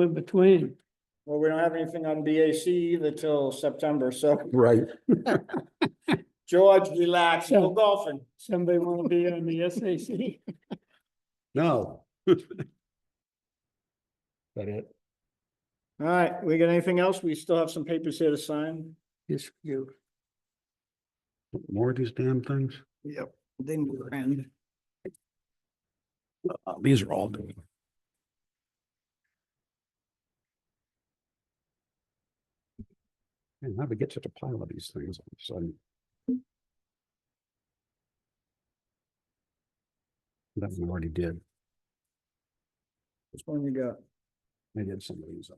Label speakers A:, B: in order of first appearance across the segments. A: in between.
B: Well, we don't have anything on BAC either till September, so
C: Right.
B: George, relax, go golfing.
A: Somebody want to be on the SAC?
C: No. That it?
B: All right, we got anything else? We still have some papers here to sign.
C: Yes, you. More of these damn things?
B: Yep. Then we're in.
C: Uh, These are all doing. And how to get such a pile of these things all of a sudden. That one I already did.
B: Which one you got?
C: I did some of these.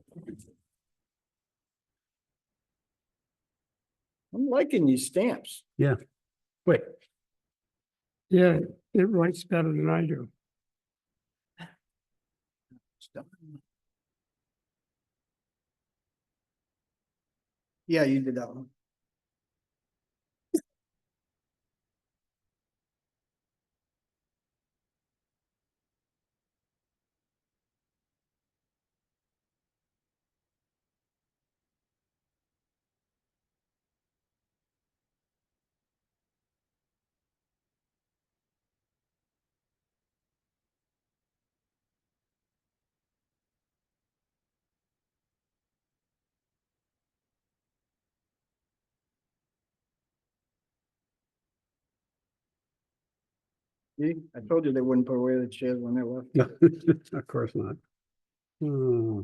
B: I'm liking these stamps.
C: Wait,
A: Yeah, it writes better than I do.
B: Yeah, you did that one. See, I told you they wouldn't put away the chairs when they left.
C: no, of course not. Hmm.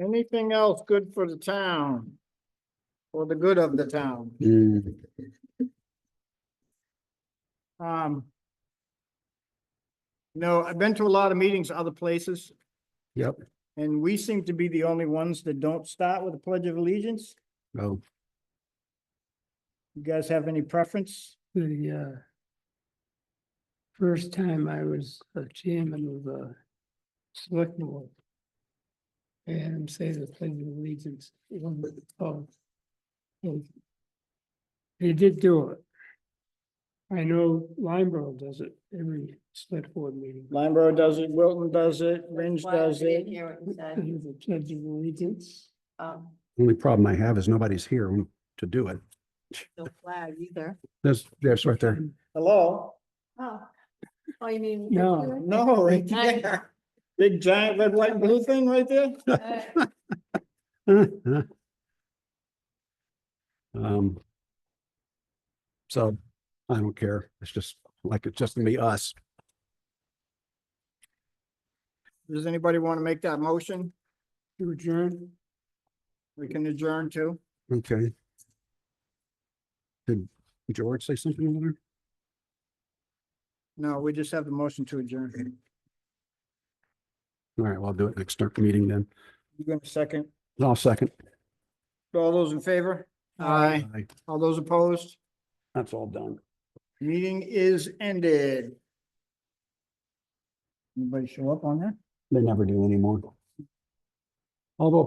B: Anything else good for the town? For the good of the town?
C: Hmm.
B: Um. No, I've been to a lot of meetings other places.
C: Yep.
B: And we seem to be the only ones that don't start with a pledge of allegiance.
C: Oh,
B: You guys have any preference?
A: The uh, first time I was a chairman of the select board. And say the pledge of allegiance. it wasn't called. And They did do it. I know Limeboro does it every select board meeting.
B: Limeboro does it, Wilton does it, Ringe
D: Why I
B: does
D: didn't
B: it.
D: hear what
A: They
D: you said.
A: do The pledge of allegiance.
D: Um,
C: only problem I have is nobody's here to do it.
D: no flag either.
C: There's, there's right there.
B: Hello?
D: Oh, oh, you mean?
A: No.
B: No, right
D: Hi.
B: there. Big giant red, white, and blue thing right there?
D: Uh,
C: Um. So I don't care. It's just like, it's just gonna be us.
B: Does anybody want to make that motion?
A: To adjourn.
B: We can adjourn too.
C: Okay. Did George say something over there?
B: No, we just have the motion to adjourn.
C: All right, well, I'll do it next start meeting then.
B: You going to second?
C: I'll second.
B: All those in favor? Aye.
C: Aye.
B: All those opposed?
C: That's all done.
B: Meeting is ended. Anybody show up on that?
C: They never do anymore. Although